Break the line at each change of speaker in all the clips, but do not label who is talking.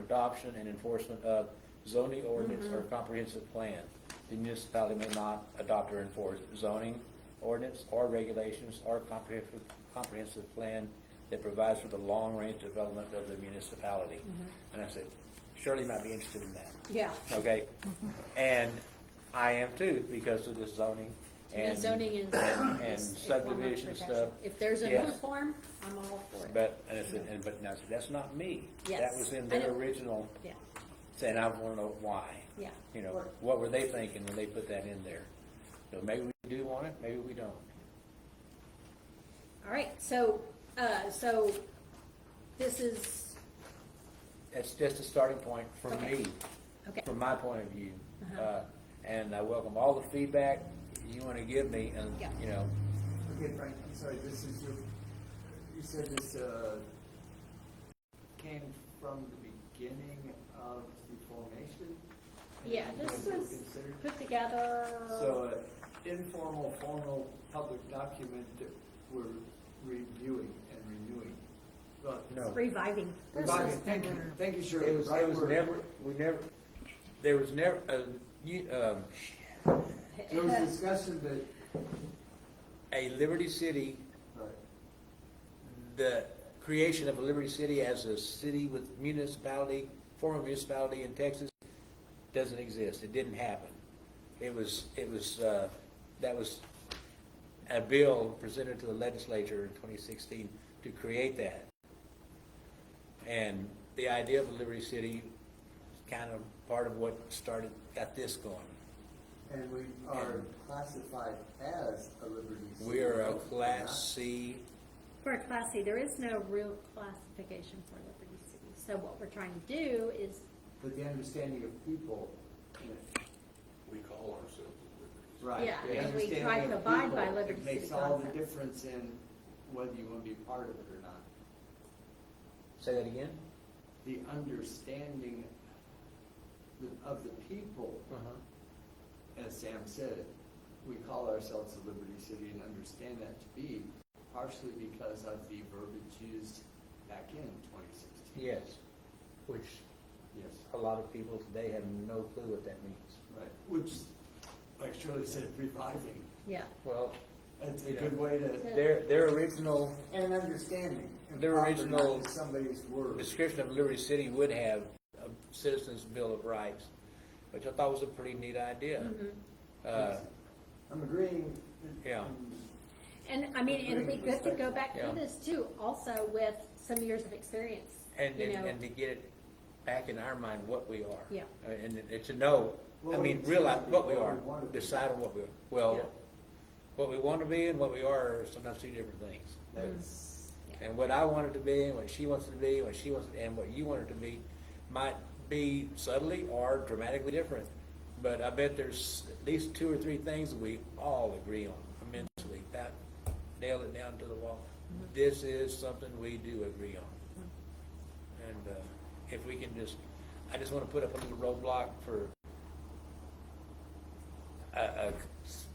adoption and enforcement of zoning ordinance
Mm-hmm.
or comprehensive plan. The municipality may not adopt or enforce zoning ordinance or regulations or comprehensive, comprehensive plan that provides for the long-range development of the municipality.
Mm-hmm.
And I said, Shirley might be interested in that,
Yeah,
okay? And I am too, because of the zoning
and
and.
zoning is.
and
is- is
subdivision
100%.
stuff.
If there's a new
Yes.
form, I'm all for it.
But, and it's, and, but now, that's not me.
Yes.
That was in
I
their
know.
original,
Yeah,
saying, I wanna know why.
yeah.
You know,
Or-
what were they thinking when they put that in there? So maybe we do want it, maybe we don't.
All right, so, uh, so this is,
That's just a starting point for
Okay.
me,
okay,
from my point of view.
Uh-huh.
Uh, and I welcome all the feedback you wanna give me and,
Yeah.
you know,
Okay, Frank, I'm sorry, this is your, you said this, uh, came from the beginning of the formation? and
yeah,
it
this
was
was
considered?
put together.
So, uh, informal, formal, public document that we're reviewing and renewing. Well,
no.
Reviving.
Reviving, thank you, thank you, Shirley.
It was,
Right
it was
word.
never, we never, there was never, uh, you, um,
There was discussion that,
a Liberty City
right,
the creation of a Liberty City as a city with municipality, former municipality in Texas, doesn't exist. It didn't happen. It was, it was, uh, that was a bill presented to the legislature in 2016 to create that. And the idea of a Liberty City is kind of part of what started, got this going.
and we are classified as a Liberty City.
We are a
We're not.
Class C,
For a Class C, there is no real classification for Liberty City. So what we're trying to do is,
But the understanding of people, you know,
we call ourselves a liberty.
Right.
Yeah,
the
and we
understanding
try to
of
abide by
people,
Liberty
It
City
makes all the
concepts.
difference in whether you want to be part of it or not.
say that again?
The understanding the- of the people, as Sam said, we call ourselves a Liberty City and understand that to be partially because of the verbiage used back in twenty sixteen.
Yes, which
Yes,
a lot of people today have no clue what that means.
right, which, like Shirley said, reviving,
yeah,
Well,
it's a good way to.
their, their original
And understanding. and
Their
proper, not
original
just Somebody's word.
description of Liberty City would have a citizen's bill of rights, which I thought was a pretty neat idea.
Mm-hmm.
Uh,
I'm agreeing.
Yeah.
and I mean, it'd be good to go back
Yeah.
through this too, also with some years of experience.
And,
you
and
know.
and to get it back in our mind what we are.
Yeah.
Uh, And, and to know, I
Well,
mean,
it's
realize
not
what we
what we
are,
wanna be.
decide on what we, are.
Yeah.
well, what we want to be and what we are are sometimes two different things.
That's,
And what I wanted to be, and what she wants to be, what she wants, and what you wanted to be, might be subtly or dramatically different. But I bet there's at least two or three things we all agree on immensely. That nailed it down to the wall. This is something we do agree on. And uh, if we can just, I just want to put up a little roadblock for a, a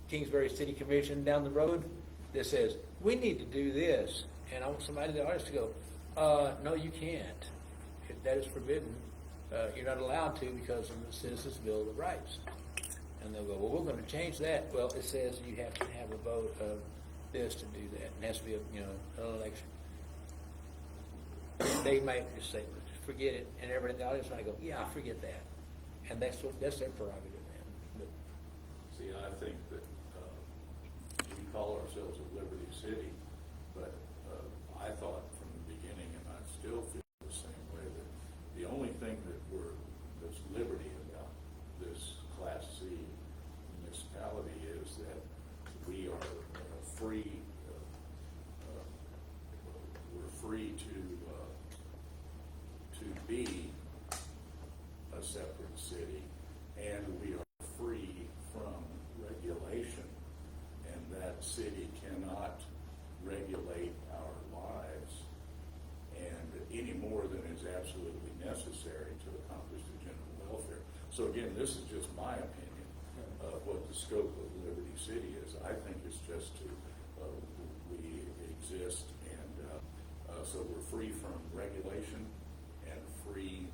Kingsbury City Commission down the road that says, we need to do this, and I want somebody in the audience to go, uh, no, you can't. If That is forbidden. Uh, you're not allowed to because of the Citizens Bill of Rights. And they'll go, well, we're gonna change that. Well, it says you have to have a vote of this to do that, and it has to be, a you know, an election. They might just say, forget it, and everybody in the audience might go, yeah, I forget that. And that's what, that's their prerogative then. But
See, I think that, uh, we call ourselves a liberty city, but, uh, I thought from the beginning, and I still feel the same way, that the only thing that we're, that's liberty about this Class C municipality is that we are uh, free, uh, uh, we're free to, uh, to be a separate city, and we are free from regulation. And that city cannot regulate our lives and any more than is absolutely necessary to accomplish the general welfare. So again, this is just my opinion of what the scope of Liberty City is. I think it's just to, uh, we exist and, uh, uh, so we're free from regulation and free